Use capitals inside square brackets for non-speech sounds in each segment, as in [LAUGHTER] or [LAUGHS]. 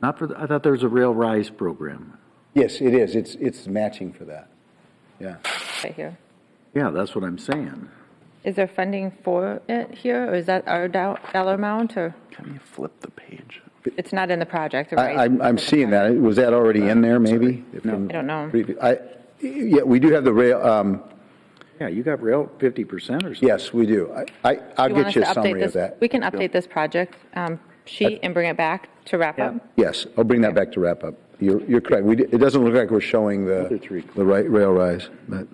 Not for, the- I thought there was a rail rise program. Yes, it is. It's, it's matching for that. Yeah. right here. Yeah, that's what I'm saying. Is there funding for it here, or is that our dol- dollar amount, or Can you flip the page? it's not in the project, right? I, I'm, I'm seeing that. Was that already in there, maybe? I don't know. I, yeah, we do have the rail, um, Yeah, you got rail fifty percent or something. yes, we do. I- I, I'll Do want get us you to a update summary of this- that. We can update this project um, sheet and bring it back to wrap up. Yes, I'll bring that back to wrap up. You're, you're correct. We, di- it doesn't look like we're showing Other the, three. the right rail rise, but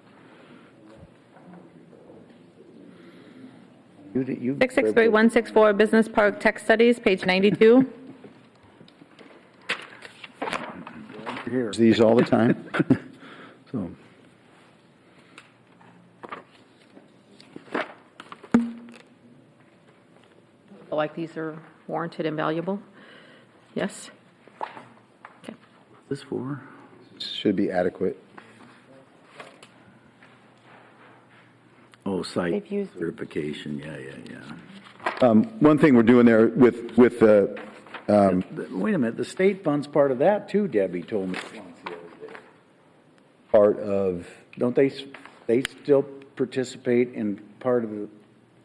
You did- you- 663164, Business Park Tech Studies, page [LAUGHS] 92. Here. these all [LAUGHS] the time. So, feel like these are warranted and valuable? Yes? This for? should be adequate. Oh, site They've used- certification, yeah, yeah, yeah. One thing we're doing there with, with the But Wait a minute, the state fund's part of that too, Debbie told me. part of, Don't they, s- they still participate in part of the,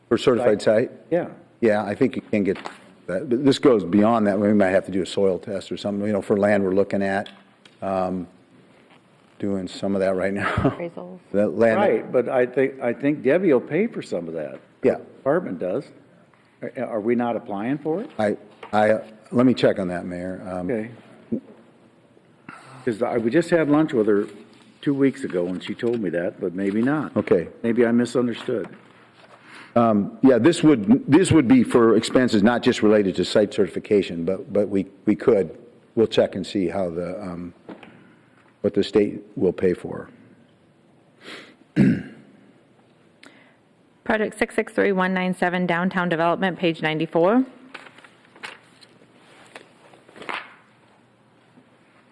for certified site? yeah. Yeah, I think you can get that. But This goes beyond that. We might have to do a soil test or something, you know, for land we're looking at. um, Doing some of that right now. [LAUGHS] Appraisals. That land. Right, but I think, I think Debbie will pay for some of that. Yeah. Department does. Are, are we not applying for it? I, I, let me check on that, Mayor. Um, Okay. Because I, we just had lunch with her two weeks ago and she told me that, but maybe not. Okay. Maybe I misunderstood. Yeah, this would, this would be for expenses not just related to site certification, but, but we, we could, we'll check and see how the, um, what the state will pay for. Project 663197, Downtown Development, page 94.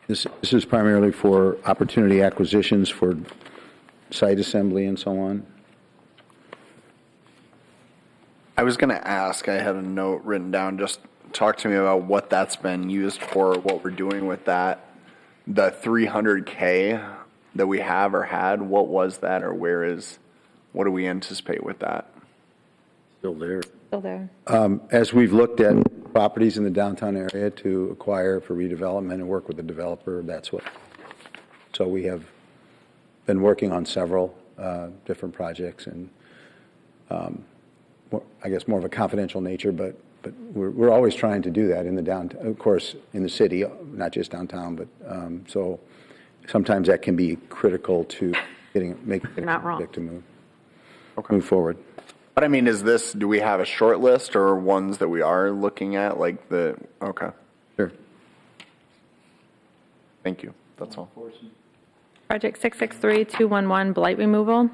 This, this is primarily for opportunity acquisitions for site assembly and so on. I was gonna ask, I had a note written down, just talk to me about what that's been used for, what we're doing with that. The three hundred K that we have or had, what was that or where is, what do we anticipate with that? Still there. Still there. As we've looked at properties in the downtown area to acquire for redevelopment and work with the developer, that's what. So we have been working on several uh, different projects and, um, more- I guess, more of a confidential nature, but, but we're, we're always trying to do that in the downtown, of course, in the city, not just downtown, but, um, so sometimes that can be critical to getting, making. You're not wrong. To move, move forward. But I mean, is this, do we have a short list or ones that we are looking at, like the, okay, Sure. thank you, that's all. Project 663211, Blight Removal,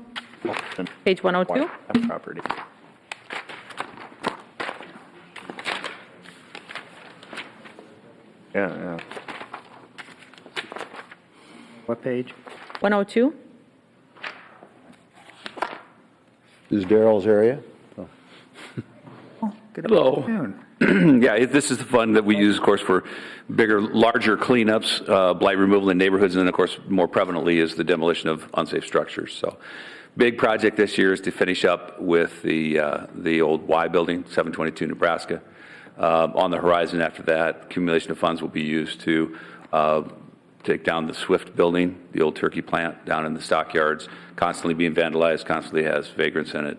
page 102. Property. Yeah, yeah. What page? 102, This is Daryl's area? Hello. Hmm. [CLEARS THROAT] Yeah, it- this is the fund that we use, of course, for bigger, larger cleanups, uh, blight removal in neighborhoods, and then, of course, more prevalently is the demolition of unsafe structures. So, big project this year is to finish up with the, uh, the old Y building, 722 Nebraska. Um, On the horizon after that, accumulation of funds will be used to uh, take down the Swift building, the old turkey plant down in the stockyards, constantly being vandalized, constantly has vagrants in it.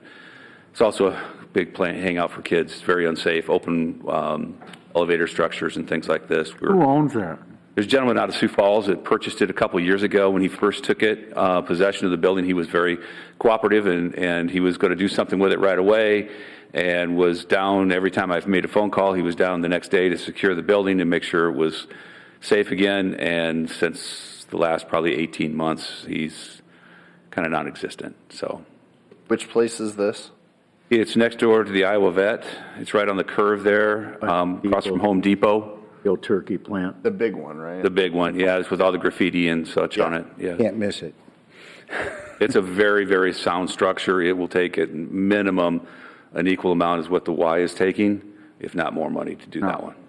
It's also a big plant hangout for kids. It's very unsafe, open um, elevator structures and things like this. We're- Who owns that? there's a gentleman out of Sioux Falls that purchased it a couple years ago. When he first took it, uh, possession of the building, he was very cooperative and, and he was going to do something with it right away and was down every time I've made a phone call. He was down the next day to secure the building and make sure it was safe again. And since the last probably 18 months, he's kind of non existent. So Which place is this? it's next door to the Iowa Vet, it's right on the curve there, um, across from Home Depot. The old turkey plant. The big one, right? The big one, yeah, it's with all the graffiti and such on it. Yeah. Can't miss it. It's a very, very sound structure. It will take at minimum an equal amount as what the Y is taking, if not more money to do that one.